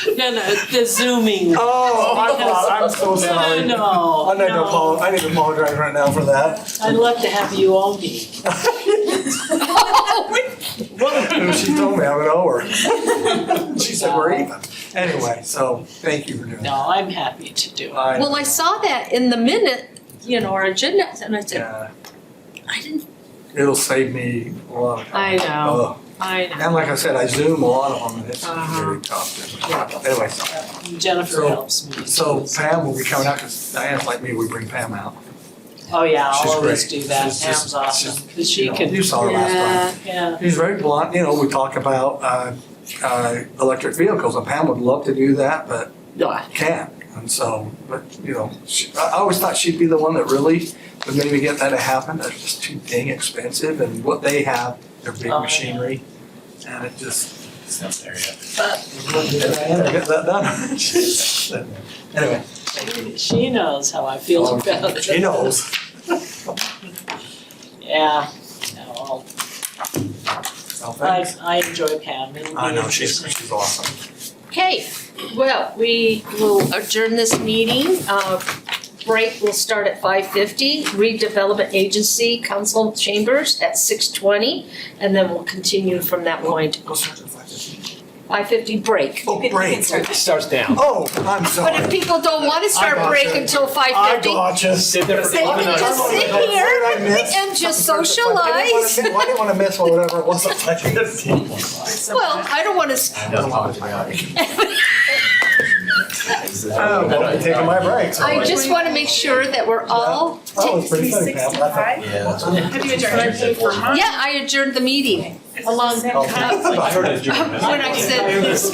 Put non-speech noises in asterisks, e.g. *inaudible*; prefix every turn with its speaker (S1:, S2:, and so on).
S1: No, no, the zooming.
S2: Oh, I'm, I'm so
S1: No,
S2: sorry.
S1: no,
S2: Oh, I need to
S1: no.
S2: apologize, I need to apologize right now for that.
S1: I'd love to have you all be.
S2: And she told me I would owe
S1: *laughs*
S2: her. She said, we're even. Anyway, so thank you for doing that.
S1: No, I'm happy to do it.
S2: I-
S3: Well, I saw that in the minute, you know, our agenda, and I said,
S2: Yeah,
S3: I didn't,
S2: it'll save me a lot of time.
S3: I know.
S2: Ugh.
S3: I know.
S2: And like I said, I zoom a lot of them and it's
S3: Uh-huh.
S2: very tough.
S1: Yeah.
S2: to- Anyway, so-
S1: Jennifer
S2: So-
S1: helps me.
S2: so
S1: too,
S2: Pam will be coming out because Diane's like me, we bring Pam out.
S1: Oh, yeah, I'll
S2: she's
S1: always
S2: great.
S1: do that.
S2: She's just-
S1: Pam's awesome, because she
S2: You know,
S1: can,
S2: You saw her last time.
S3: Yeah,
S1: yeah.
S2: He's very blunt, you know, we talk about uh, uh, electric vehicles, and Pam would love to do that, but can't. And so, but, you know, she- I I always thought she'd be the one that really would maybe get that to happen, that's just too dang expensive, and what they have, their big
S1: Oh, yeah.
S2: machinery, and it just.
S4: South area.
S2: Get that done. *laughs* Anyway,
S1: She knows how I feel
S2: Um,
S1: about it.
S2: she knows.
S1: Yeah, no, I'll-
S2: Oh,
S1: I,
S2: thanks.
S1: I enjoy Pam, it'll be
S2: I know, she's,
S1: interesting.
S2: she's awesome.
S3: okay, well, we will adjourn this meeting, uh, break will start at five fifty, redevelopment agency council chambers at six twenty, and then we'll continue from that point,
S2: Go start at 5:15.
S3: five fifty break.
S2: Oh, break.
S4: It starts down.
S2: Oh, I'm
S3: But if
S2: sorry.
S3: people don't wanna start
S2: gotcha.
S3: break until five
S2: I
S3: fifty,
S2: gotcha.
S4: Sit there for
S3: They
S4: five
S3: can
S4: minutes.
S3: just sit
S2: What did I miss?
S3: and just
S2: I didn't wanna miss-
S3: socialize.
S2: I didn't wanna miss whatever it
S4: *laughs*
S2: was at five fifteen.
S3: *laughs* Well, I don't wanna, s-
S4: That's probably-
S2: Oh, well, I'm taking my breaks.
S3: I just wanna make sure that we're all
S2: That was pretty funny, Pam. I
S4: Yeah.
S2: thought-
S5: Have you adjourned for months?
S3: Yeah, I adjourned the meeting
S5: Along that
S2: Oh.
S5: conflict.
S4: I heard it.
S3: when I said,